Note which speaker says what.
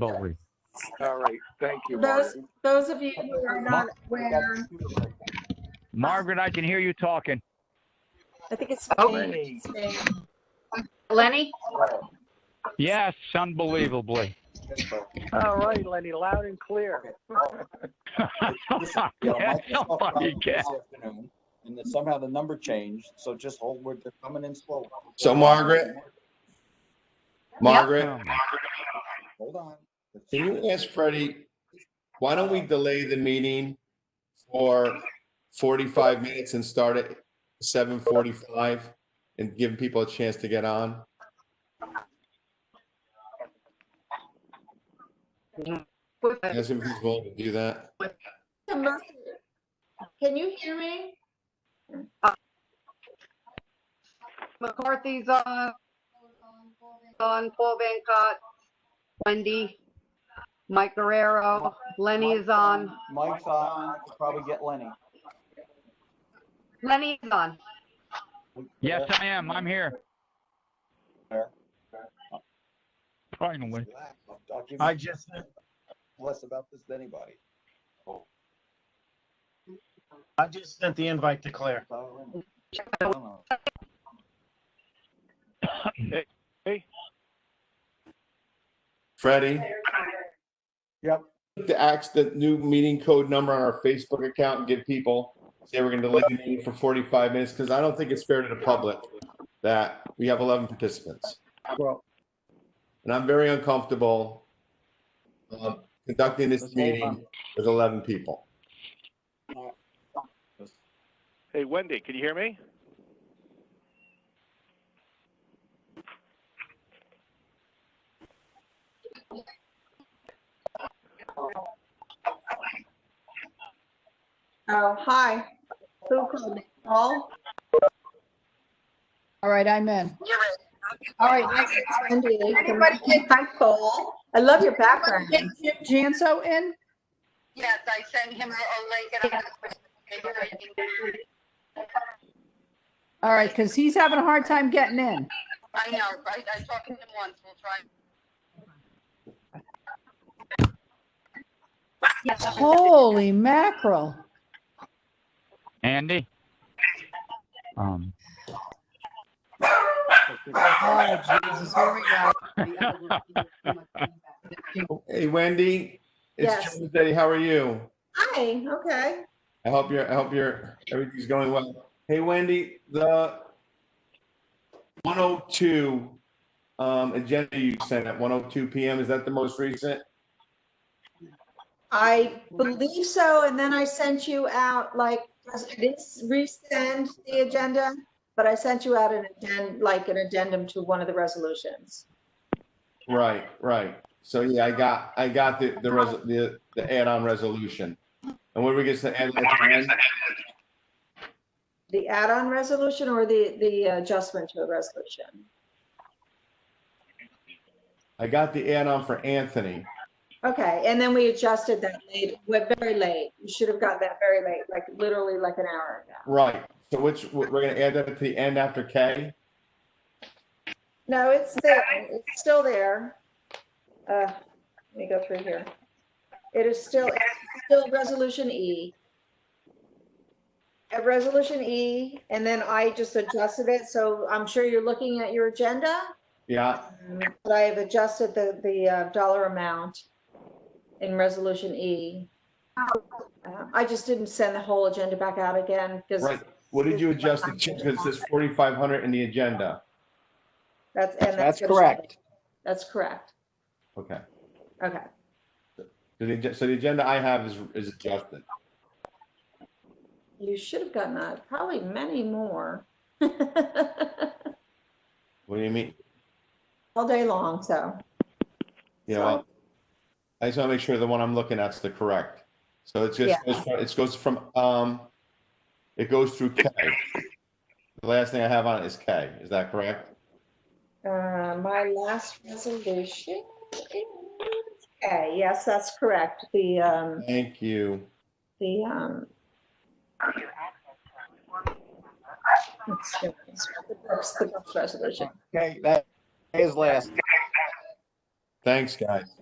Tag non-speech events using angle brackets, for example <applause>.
Speaker 1: Botley.
Speaker 2: All right, thank you,
Speaker 3: Those,
Speaker 2: Martin.
Speaker 3: those of you who are not aware,
Speaker 4: Margaret, I can hear you talking.
Speaker 5: I think it's
Speaker 3: Oh.
Speaker 5: me.
Speaker 2: Hey,
Speaker 3: Lenny,
Speaker 4: Yes, unbelievably.
Speaker 6: All right, Lenny, loud and clear.
Speaker 4: <laughs> Yeah, somebody get-
Speaker 7: And then somehow the number changed, so just hold, we're they're coming in slow.
Speaker 8: So Margaret? Margaret,
Speaker 7: Hold on.
Speaker 8: can you ask Freddie, why don't we delay the meeting for 45 minutes and start at 7:45 and give people a chance to get on?
Speaker 3: with a-
Speaker 8: Ask him if he's willing to do that.
Speaker 3: can you hear me?
Speaker 9: McCarthy's on, on Paul Van Cott, Wendy, Mike Guerrero, Lenny is on.
Speaker 7: Mike's on, uh, Could probably get Lenny.
Speaker 9: Lenny is on.
Speaker 4: Yes, I am. I'm here. Finally.
Speaker 7: I'll give
Speaker 4: I
Speaker 7: you
Speaker 4: just,
Speaker 7: less about this than anybody.
Speaker 6: I just sent the invite to Claire.
Speaker 7: I
Speaker 9: All
Speaker 7: don't know.
Speaker 8: Freddie?
Speaker 7: Yep.
Speaker 8: To ask the new meeting code number on our Facebook account and give people, say we're going to delay the meeting for 45 minutes because I don't think it's fair to the public that we have 11 participants.
Speaker 7: Well,
Speaker 8: And I'm very uncomfortable um, conducting this meeting with 11 people.
Speaker 2: Hey, Wendy, can you hear me?
Speaker 3: Oh, hi. Who called me? Paul?
Speaker 5: All right, I'm in.
Speaker 3: All right, next is Wendy. Hi, Paul. I love your background.
Speaker 5: Get Jim Janso in?
Speaker 9: Yes, I sent him a link and
Speaker 5: All right, because he's having a hard time getting in.
Speaker 9: I know, I, I talked to him once, we'll try.
Speaker 5: Holy mackerel.
Speaker 4: Andy? Um,
Speaker 5: Oh, Jesus, here we go.
Speaker 8: Hey Wendy, it's
Speaker 3: Yes.
Speaker 8: Tuesday. How are you?
Speaker 3: Hi, okay.
Speaker 8: I hope you're, I hope you're, everything's going well. Hey Wendy, the 102 um, agenda you sent at 1:02 PM, is that the most recent?
Speaker 3: I believe so, and then I sent you out, like, I didn't resend the agenda, but I sent you out an addend, like, an addendum to one of the resolutions.
Speaker 8: Right, right. So yeah, I got, I got the, the, res the, the add-on resolution. And what are we going to add? at the end?
Speaker 3: The add-on resolution or the, the adjustment to a resolution?
Speaker 8: I got the add-on for Anthony.
Speaker 3: Okay, and then we adjusted that late, we're very late. You should have gotten that very late, like literally like an hour ago.
Speaker 8: Right. So which, we're going to add that at the end after K?
Speaker 3: No, it's there, it's still there. Uh, Let me go through here. It is still, it's still Resolution E. At Resolution E, and then I just adjusted it, so I'm sure you're looking at your agenda.
Speaker 8: Yeah,
Speaker 3: But I have adjusted the, the uh, dollar amount in Resolution E. Uh, I just didn't send the whole agenda back out again because
Speaker 8: right. What did you adjust it to? Because it says 4,500 in the agenda.
Speaker 3: that's. and
Speaker 6: That's
Speaker 3: what it should
Speaker 6: correct.
Speaker 3: be. That's correct.
Speaker 8: Okay.
Speaker 3: Okay.
Speaker 8: So the, agen- so the agenda I have is, is adjusted.
Speaker 3: You should have gotten that, probably many more. All
Speaker 8: What do you mean?
Speaker 3: day long, so.
Speaker 8: Yeah, well, I just want to make sure the one I'm looking at's the correct. So it's just, it goes from, um, it goes through K. The last thing I have on it is K. Is that correct?
Speaker 3: Uh, my last resolution is, okay, yes, that's correct. The, um,
Speaker 8: Thank you.
Speaker 3: the, um. let's see, The books- the books resolution.
Speaker 6: Okay, that is last.
Speaker 8: Thanks, guys.